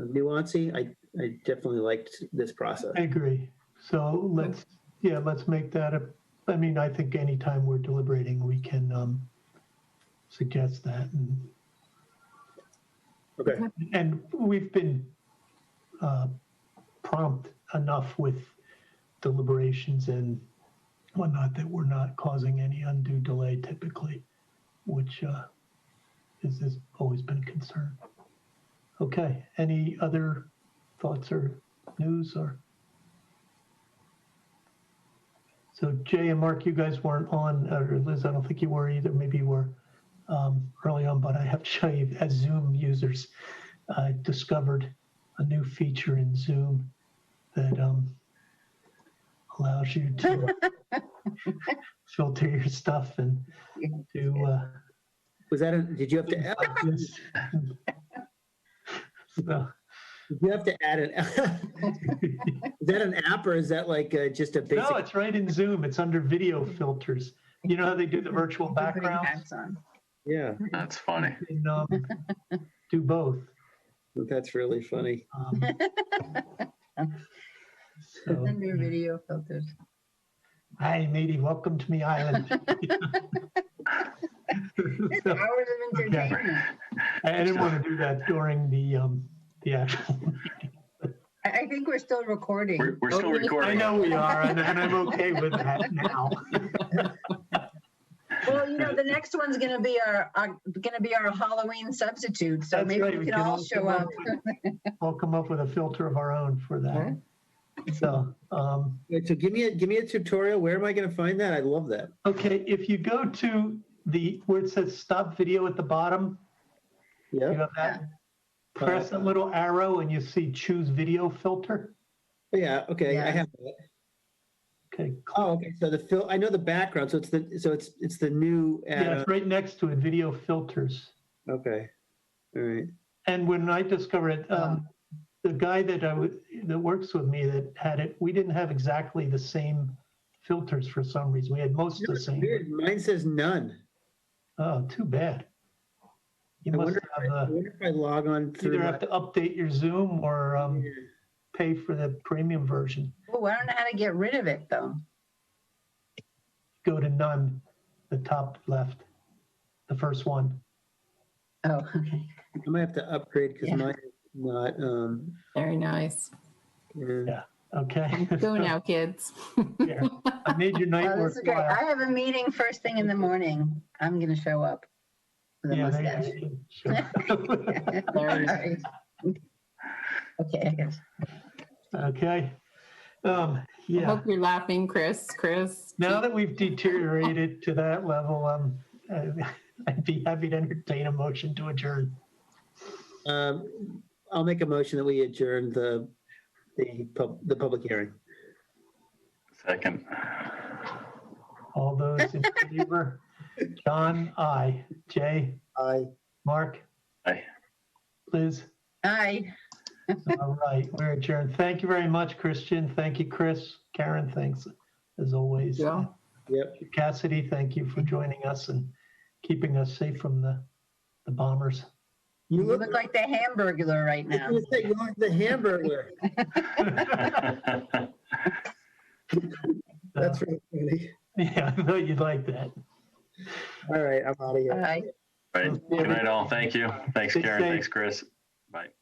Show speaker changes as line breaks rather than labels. nuancy. I, I definitely liked this process.
I agree. So let's, yeah, let's make that a, I mean, I think anytime we're deliberating, we can um, suggest that. And,
Okay,
and we've been uh, prompt enough with deliberations and whatnot that we're not causing any undue delay typically, which uh, is, has always been a concern. Okay, any other thoughts or news or? So Jay and Mark, you guys weren't on, or Liz, I don't think you were either, maybe you were um, early on, but I have to show you, as Zoom users, I discovered a new feature in Zoom that um, allows you to uh, filter your stuff and do uh,
was that, a- did you have to, oh,
this. so,
did you have to add an, is that an app or is that like uh, just a
no,
basic?
it's right in Zoom. It's under video filters. You know how they do the virtual
Putting
backgrounds?
hats on.
Yeah,
That's funny.
You can, um, do both.
that's really funny.
Um, so,
Under video filters.
Hi, matey, welcome to me island.
It's
So,
hours of
Okay.
entertainment.
I I didn't want to do that during the um the actual.
I, I think we're still recording.
We're, we're still
Oh, really?
I
recording.
know we are, and, and I'm okay with that now.
Well, you know, the next one's gonna be our, our, gonna be our Halloween substitute, so
That's
maybe
right,
we can all
come
show up.
with- We'll come up with a filter of our own for that. So, um,
Wait, So give me a, give me a tutorial. Where am I going to find that? I love that.
okay, if you go to the where it says stop video at the bottom, you
Yeah,
have that. Press that little arrow, and you see choose video filter.
Oh, yeah, okay, I
Yeah.
have that.
Okay,
Oh, okay, so the fill, I know the background, so it's the, so it's, it's the new
yeah,
add
it's right next to it, video filters.
Okay, all right.
And when I discovered it, um, the guy that I would, that works with me that had it, we didn't have exactly the same filters for some reason. We had most of the
It's
same.
weird. Mine says none.
Oh, too bad. You
I
must
wonder,
have,
I
uh,
wonder if I log on through.
either
my-
have to update your Zoom or um,
Yeah.
pay for the premium version.
Oh, I don't know how to get rid of it, though.
Go to none, the top left, the first one.
Oh, okay.
I might have to upgrade because
Yeah.
mine is not. Um,
Very nice.
yeah.
Yeah. Okay.
Go now, kids.
Here. I made your night
Oh,
Well,
work.
this is great. I have a meeting first thing in the morning. I'm gonna show up. With a
Yeah, there you
mustache.
go. Sure.
Very nice.
Sorry. Okay, I guess.
Okay. Um, yeah.
I hope you're laughing, Chris. Chris.
Now that we've deteriorated to that level, um, I- I'd be happy to entertain a motion to adjourn.
Um, I'll make a motion that we adjourn the the pub, the public hearing.
Second.
All those in favor? John, I. Jay,
Aye.
Mark,
Aye.
Liz?
Aye.
All right, we're adjourned. Thank you very much, Christian. Thank you, Chris. Karen, thanks as always.
Yeah.
Yep.
Cassidy, thank you for joining us and keeping us safe from the, the bombers.
You
You
look,
look like the hamburglar right
I was
now.
gonna say, you look like the hamburger. That's really funny.
Yeah, I thought you'd like that.
All right, I'm out of here.
Bye.
Right. Good night, all. Thank you. Thanks,
Stay
Karen.
safe.
Thanks, Chris. Bye.